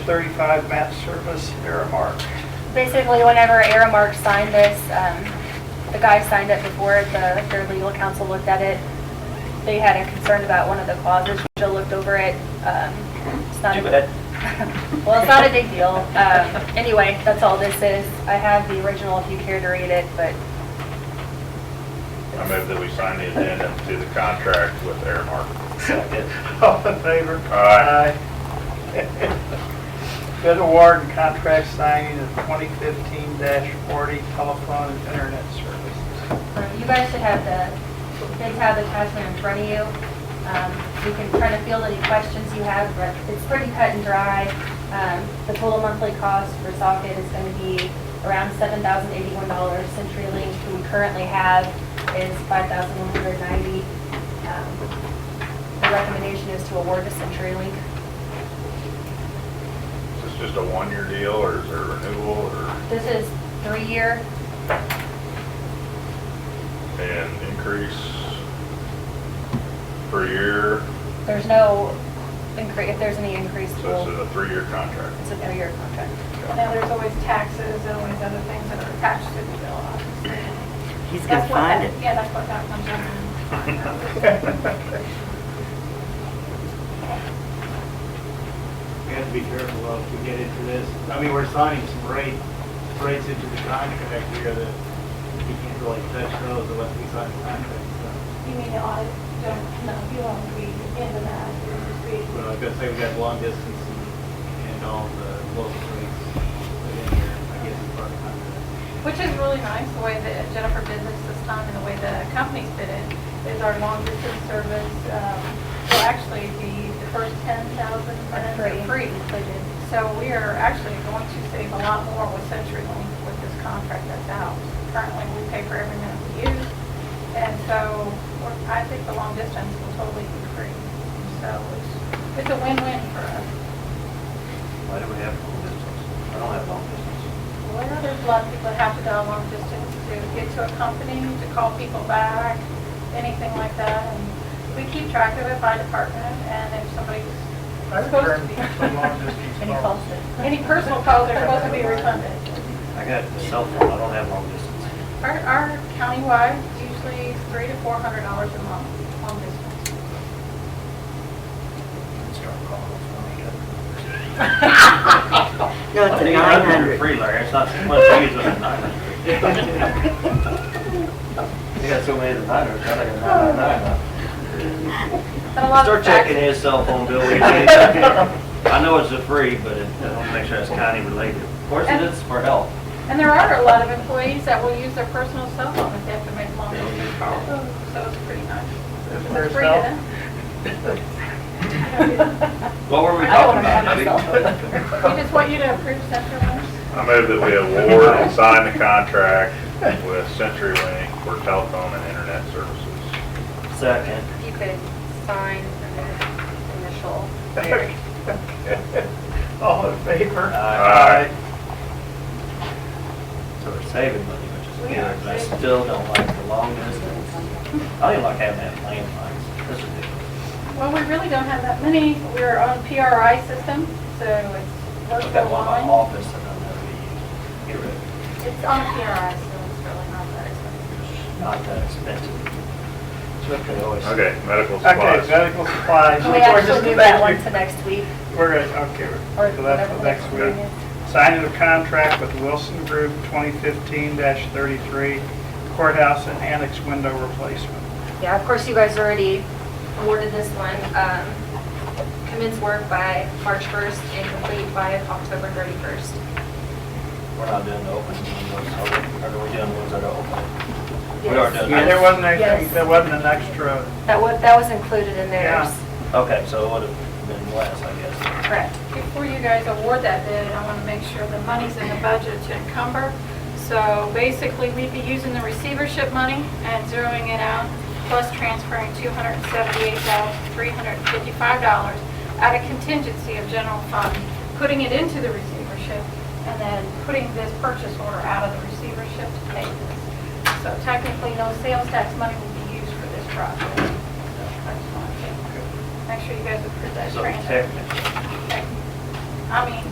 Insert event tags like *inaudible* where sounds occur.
thirty-five map service, Aramark. Basically, whenever Aramark signed this, um, the guy signed it before, it, the, their legal counsel looked at it. They had a concern about one of the clauses, Jill looked over it, um, it's not. a- Too bad. *laughs* Well, it's not a big deal. Um, anyway, that's all this is. I have the original if you care to read it, but I move that we sign the addendum to the contract with Airmark. *laughs* All in favor? Aye. Aye. Bid award and contract signing of twenty fifteen forty telephone and internet services. Um, You guys should have the bid tab attachment in front of you. Um, You can kind of field any questions you have, but it's pretty cut and dry. Um, The total monthly cost for socket is going to be around seven thousand eighty-one dollars. CenturyLink, who we currently have, is five thousand one hundred ninety. Um, The recommendation is to award to CenturyLink. Is this just a one-year deal, or is there a renewal, or This is three-year, an increase per year? there's no, incre- if there's any increase, So this we'll- is a three-year contract. it's a three-year contract. Now, there's always taxes and always other things that are attached to the bill, obviously. He's gonna That's what find that- it. Yeah, that's what that comes under. We have to be careful though, if we get into this. I mean, we're signing some rate, rates into the contract here that we can't really touch those unless we sign the contract. So, You mean, I don't, no, you won't be into that, you'll just be, But I gotta say, we got long distance and- and all the local rates put in here, I guess, as part of the contract. which is really nice, the way that Jennifer did this this time and the way the companies did it, is our long distance service, um, will actually be the first ten thousand minutes are free. Included. So we are actually going to save a lot more with CenturyLink with this contract that's out. Currently, we pay for every minute we use, and so we're- I think the long distance will totally be free. So it's, it's a win-win for us. Why do we have long distance? I don't have long distance. Well, there's a lot of people that have to dial long distance to get to a company, to call people back, anything like that. And we keep track of it by department, and if somebody's I supposed returned to be, *laughs* from long distance Any calls. calls? *laughs* any personal calls are supposed to be refunded. I got a cell phone, I don't have long distance. Our, our countywide usually is three to four hundred dollars a month on this one. Start calling those when we get- No, it's I a think nine 800 is hundred. Free, Larry, it's not too much to use on a nine *laughs* hundred. *laughs* They got so many of the nine hundreds, I think a nine nine And a nine. lot of Start fax- checking his cell phone bill. *laughs* we need to- I know it's a free, but it- I want to make sure it's county related. Of course it is for health. And there are a lot of employees that will use their personal cell phone if they have to make long distance calls, so it's pretty nice. It's free to them. What were we I don't talking wanna about? have a cell phone. *laughs* We just want you to approve CenturyLink. I move that we award and sign the contract with CenturyLink for telephone and internet services. Second. You could sign and then initial. Mary. All in favor? Aye. So we're saving money, which is We are good, but I saving. still don't like the long distance. I don't like having that landlines. That's ridiculous. Well, we really don't have that many. We're on PRI system, so it's I've got virtual one in my line. office and I'm never get rid of it. It's on PRI, so it's really not that expensive. It's Not that expensive. So I could always. Okay, medical Okay, supplies. medical supplies. We We're just actually move that one gonna- to next week, We're gonna, okay, we're- or so that's whatever for the next meeting week. is. Signing of contract with Wilson Group 2015-33 courthouse and annex window replacement. Yeah, of course, you guys already awarded this one. Um, Commence work by March 1st and complete by October 31st. We're not doing the open windows, so we- or are we doing ones that are open? We are doing. Yeah, there wasn't anything, Yes. there wasn't an extra, That was, that was included in Yeah. theirs. Okay, so it would have been less, I guess. Correct. Before you guys award that bid, I want to make sure the money's in the budget to encumber. So basically, we'd be using the receivership money and zeroing it out, plus transferring $278,355 out of contingency of general fund, putting it into the receivership, and then putting this purchase order out of the receivership to pay this. So technically, no sales tax money will be used for this project. So I just want to make sure you guys approve that So transfer. technically, Okay. I mean,